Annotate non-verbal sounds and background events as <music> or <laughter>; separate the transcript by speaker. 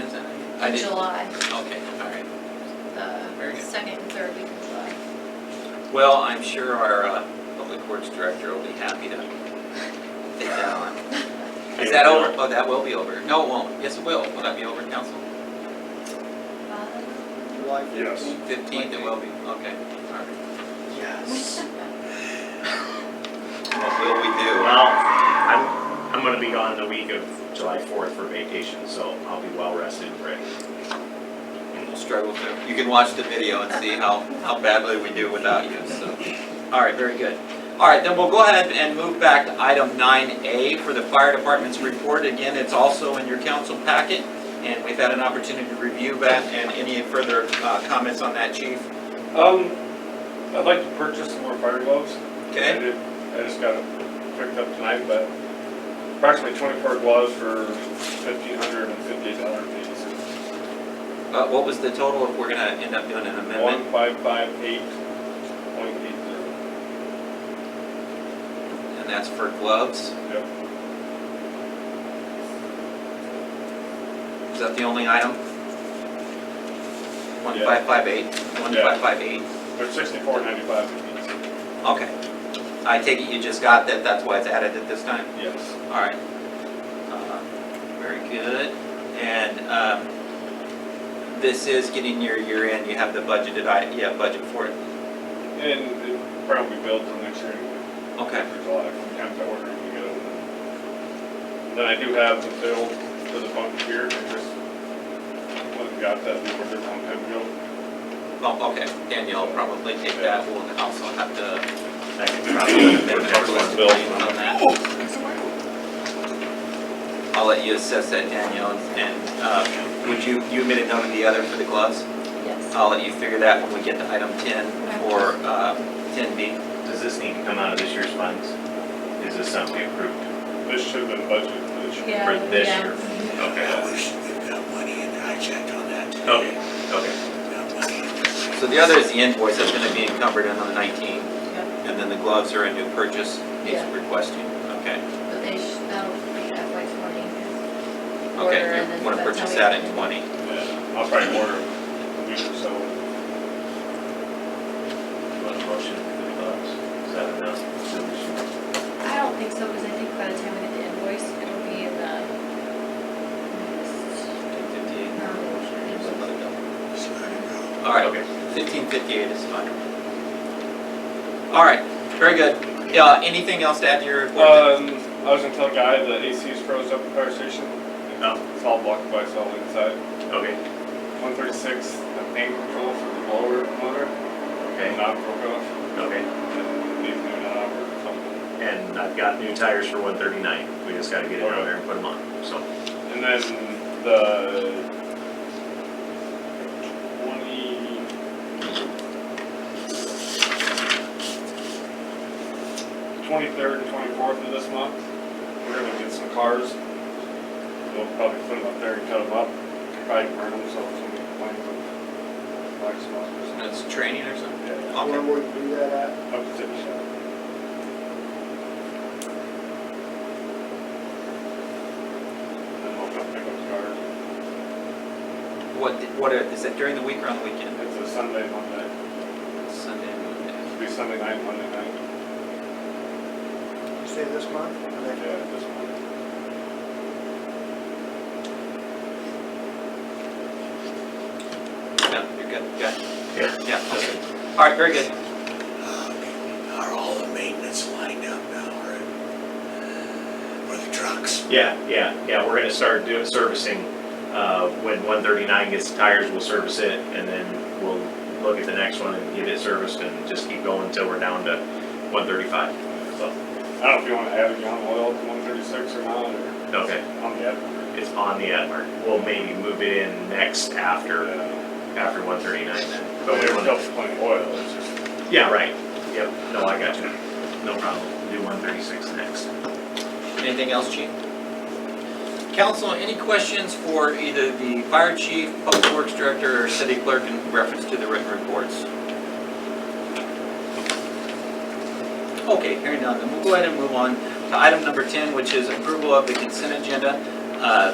Speaker 1: I
Speaker 2: of
Speaker 1: didn't-
Speaker 2: July,
Speaker 1: Okay, all right. Very
Speaker 2: the
Speaker 1: good.
Speaker 2: second and third week of July.
Speaker 1: Well, I'm sure our uh, Public Works Director will be happy to take that on. Is that over? Oh, that will be over. No, it won't. Yes, it will. Will that be over, Council?
Speaker 3: July
Speaker 4: Yes.
Speaker 3: 15th.
Speaker 1: Fifteenth, it will be. Okay, all right.
Speaker 3: <laughs> Yes.
Speaker 1: What will we do?
Speaker 4: Well, I'm, I'm gonna be gone the week of July fourth for vacation, so I'll be well rested and ready.
Speaker 1: We'll struggle to. You can watch the video and see how, how badly we do without you, so. All right, very good. All right, then we'll go ahead and move back to item nine A for the fire department's report. Again, it's also in your council packet, and we've had an opportunity to review that, and any further uh, comments on that, chief?
Speaker 5: Um, I'd like to purchase some more fire gloves. I
Speaker 1: Okay?
Speaker 5: did- I just got them picked up tonight, but approximately twenty-four gloves for fifteen hundred and fifty dollars each.
Speaker 1: Uh, What was the total if we're gonna end up doing an
Speaker 5: One
Speaker 1: amendment?
Speaker 5: five five eight point eight zero.
Speaker 1: And that's for gloves?
Speaker 5: Yep.
Speaker 1: Is that the only item? One
Speaker 5: Yeah.
Speaker 1: five five eight. One
Speaker 5: Yeah.
Speaker 1: five five eight.
Speaker 5: They're sixty-four ninety-five each.
Speaker 1: Okay. I take it you just got that, that's why it's added at this time?
Speaker 5: Yes.
Speaker 1: All right. Uh, Very good. And um, this is getting your year end, you have the budgeted, i- yeah, budget for it.
Speaker 5: And it probably built till next year anyway.
Speaker 1: Okay,
Speaker 5: for July, from time to order, you get them. Then I do have the bill for the bunk here, I just, went and got that and ordered on time ago.
Speaker 1: well, Oh, okay, Danielle will probably take that, we'll also have to.
Speaker 4: I can probably work next month's bill.
Speaker 1: On that. I'll let you assess that, Danielle, and uh, would you, you made a note of the other for the gloves?
Speaker 2: Yes.
Speaker 1: I'll let you figure that when we get to item 10 or uh, 10B.
Speaker 4: Does this need to come out of this year's funds? Is this something we approved?
Speaker 5: This should have been budgeted, this should.
Speaker 2: Yeah.
Speaker 4: For this
Speaker 2: yeah.
Speaker 4: year.
Speaker 6: Yeah, we should, we've got money in, I checked on that today.
Speaker 3: Oh.
Speaker 4: Okay, okay.
Speaker 6: We've got money in.
Speaker 1: So the other is the invoice that's gonna be encumbered in on 19,
Speaker 2: Yep,
Speaker 1: and then the gloves are a new purchase, he's
Speaker 2: Yeah.
Speaker 1: requesting, okay?
Speaker 2: But they should, that'll be FY twenty. Order
Speaker 1: Okay,
Speaker 2: and then
Speaker 1: you wanna
Speaker 2: that's how
Speaker 1: purchase
Speaker 2: we-
Speaker 1: that in 20.
Speaker 5: Yeah, I'll probably order a week or so.
Speaker 4: You want a motion for the gloves? Is that enough?
Speaker 2: I don't think so, because I think by the time we get the invoice, it'll be in the.
Speaker 1: 1558. So
Speaker 2: um,
Speaker 1: let it go.
Speaker 6: It's not enough.
Speaker 1: All right,
Speaker 4: Okay.
Speaker 1: 1558 is fine. All right, very good. Uh, Anything else to add to your report?
Speaker 5: Um, I was gonna tell Guy the AC's froze up at the fire station.
Speaker 4: No.
Speaker 5: It's all blocked by solid inside.
Speaker 4: Okay,
Speaker 5: One thirty-six, the main control for the blower motor,
Speaker 4: okay,
Speaker 5: not broke off,
Speaker 4: okay.
Speaker 5: and leave it not out or something.
Speaker 4: And I've got new tires for one thirty-nine. We just gotta get it out there and put them on, so.
Speaker 5: And then the twenty. Twenty-third and twenty-fourth of this month, we're gonna get some cars. We'll probably put them up there and cut them up, probably burn them, so it's gonna be fine for black spot or something.
Speaker 1: That's training or something?
Speaker 5: Yeah,
Speaker 1: Okay.
Speaker 3: Where would we do that at?
Speaker 5: up to the shop. Then we'll come pick up the cars.
Speaker 1: What, what, are- is it during the week or on the weekend?
Speaker 5: It's a Sunday, Monday,
Speaker 1: Sunday, Monday.
Speaker 5: it'll be Sunday night, Monday night,
Speaker 3: You Say this month? or
Speaker 5: yeah,
Speaker 3: next month?
Speaker 5: this one.
Speaker 1: No, you're good, good.
Speaker 4: Yeah.
Speaker 1: Yeah, okay. All right, very good.
Speaker 6: Um, Are all the maintenance lined up now, or, or the trucks?
Speaker 4: Yeah, yeah, yeah, we're gonna start doing servicing, uh, when one thirty-nine gets the tires, we'll service it, and then we'll look at the next one and get it serviced and just keep going until we're down to one thirty-five, so,
Speaker 5: I don't know if you wanna add a gallon of oil to one thirty-six or not, or
Speaker 4: okay.
Speaker 5: on the ad.
Speaker 4: It's on the Adler, we'll maybe move it in next after,
Speaker 5: Yeah.
Speaker 4: after one thirty-nine then.
Speaker 5: But
Speaker 4: But we
Speaker 5: we're
Speaker 4: wanna,
Speaker 5: still plenty of oil, it's just,
Speaker 4: yeah, right, yep, no, I got you, no problem, do one thirty-six next.
Speaker 1: Anything else, chief? Council, any questions for either the fire chief, public works director, or city clerk in reference to the written reports? Okay, hearing none, then we'll go ahead and move on to item number 10, which is approval of the consent agenda. Uh,